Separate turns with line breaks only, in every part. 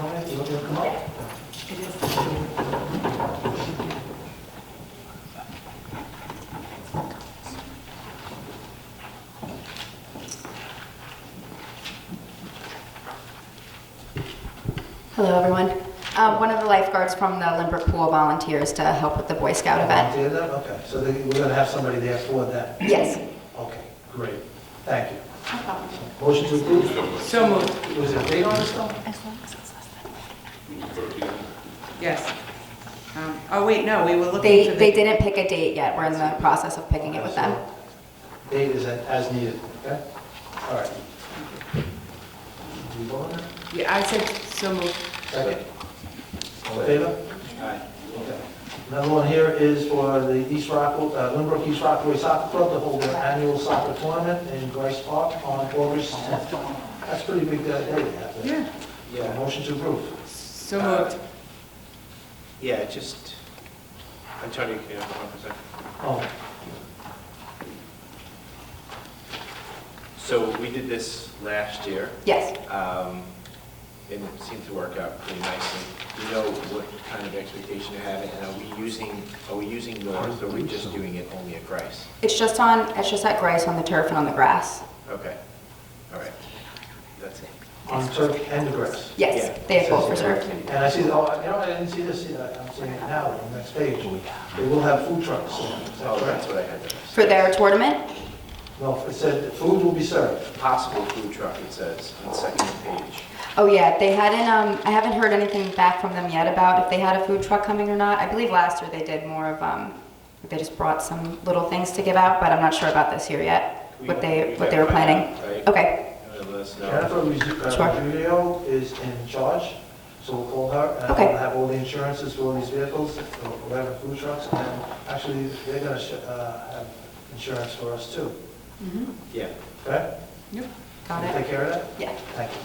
what they'll come up with.
Hello, everyone. Um, one of the lifeguards from the Limbrook Pool volunteers to help with the Boy Scout event.
Do that? Okay, so they- we're going to have somebody there for that.
Yes.
Okay, great. Thank you. Motion to approve.
So moved,
Was there a date on this though?
yes. Um, Oh, wait, no, we were looking
They,
for
they
the,
didn't pick a date yet. We're in the process of picking it with them.
Date is as needed, okay? All right. Do you vote on that?
Yeah, I said so moved.
Second. All in favor? Okay. Another one here is for the East Rockaway, uh, Lynbrook East Rockaway Soccer Club to hold their annual soccer tournament in Grace Park on August 10th. That's pretty big uh, day, that day.
Yeah,
Yeah, motion to approve.
so moved.
Uh, Yeah, just, Antonio, can you have one for a second?
Oh,
So we did this last year,
Yes.
um, and it seemed to work out pretty nicely. Do you know what kind of expectation you have, and are we using, are we using North, or are we just doing it only at Grice?
It's just on, it's just at Grace on the turf and on the grass.
Okay, all right, that's it.
on turf and the grass.
Yes,
Yeah.
they have both reserved.
And I see, the- oh, you know, I didn't see this, either. I'm seeing it now on the next page. They will have food trucks. Is that
Oh, that's
correct?
what I had there.
For their tournament?
No, it said food will be served.
Possible food truck, it says, on the second page.
Oh, yeah, they hadn't, um, I haven't heard anything back from them yet about if they had a food truck coming or not. I believe last year they did more of, um, they just brought some little things to give out, but I'm not sure about this year yet, what they, what they were planning. Okay,
Uh, Let us know.
Jennifer
Sure.
Ruggiero is in charge, so we'll call her. and
Okay.
We'll have all the insurances for all these vehicles, we'll have food trucks, and actually, they're gonna sh- uh, have insurance for us too,
Mhm.
Yeah,
okay?
Yep.
got
Take
it?
care of that?
Yeah.
Thank you.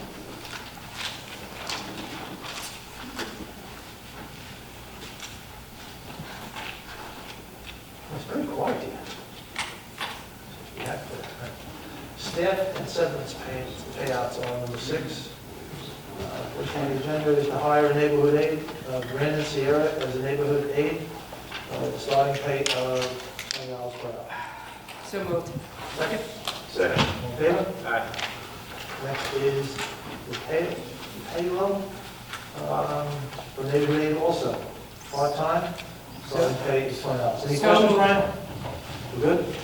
It's very quiet here. Yeah, but, uh, Staff and severance pay- payouts are number six. Uh, First on the agenda is to hire a neighborhood aide, uh, Brandon Sierra as a neighborhood aide, uh, with a starting pay of twenty dollars per hour.
So moved.
Second,
second.
all in favor?
Aye.
Next is the pay- payroll, um, for neighborhood aid also, part-time, starting pay is twenty dollars. Any
So-
questions, Brian? We're good?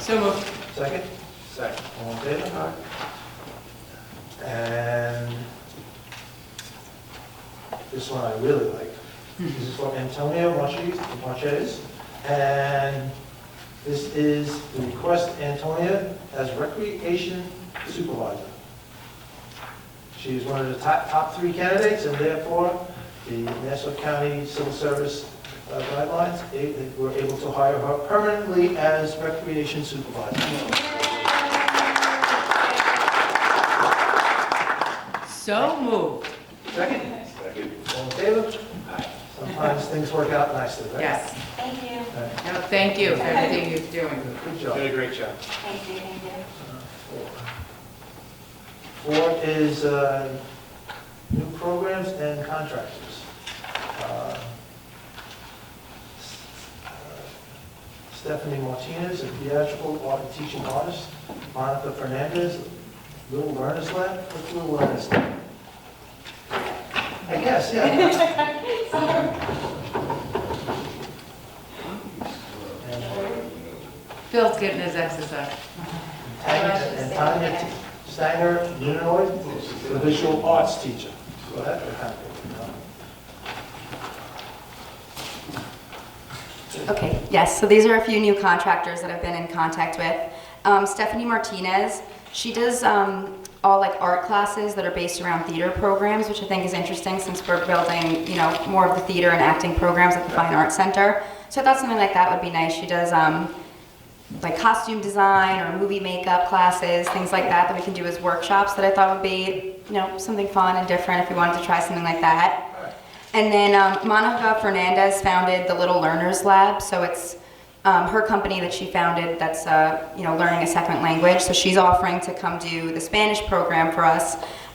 So moved.
Second?
Second.
All in favor? And this one I really like. This is from Antonio Marches- Marches. And this is the request Antonia as recreation supervisor. She is one of the top, top three candidates and therefore the Nassau County Civil Service uh, guidelines, eh, they were able to hire her permanently as recreation supervisor.
So moved.
Second?
Second.
All in favor?
Aye.
Sometimes things work out nicely, right?
Yes.
Thank you,
Right.
No, thank you for everything you're doing.
Good
You
job.
did a great job.
thank you, thank you.
Four is uh, new programs and contractors. Uh, Stephanie Martinez, a theatrical art and teaching artist. Monica Fernandez, Little Learners Lab, what's Little Learners Lab? I guess, yeah. And
Phil's getting his exercise.
Tanya and Tanya Stanger, Uninoy, the visual arts teacher. So that would happen, you know.
Okay, yes, so these are a few new contractors that I've been in contact with. Um, Stephanie Martinez, she does um, all like art classes that are based around theater programs, which I think is interesting since we're building, you know, more of the theater and acting programs at the Fine Arts Center. So I thought something like that would be nice. She does um, like costume design or movie makeup classes, things like that that we can do as workshops that I thought would be, you know, something fun and different if we wanted to try something like that. And then um, Monica Fernandez founded the Little Learners Lab, so it's um, her company that she founded that's uh, you know learning a second language. So she's offering to come do the Spanish program for us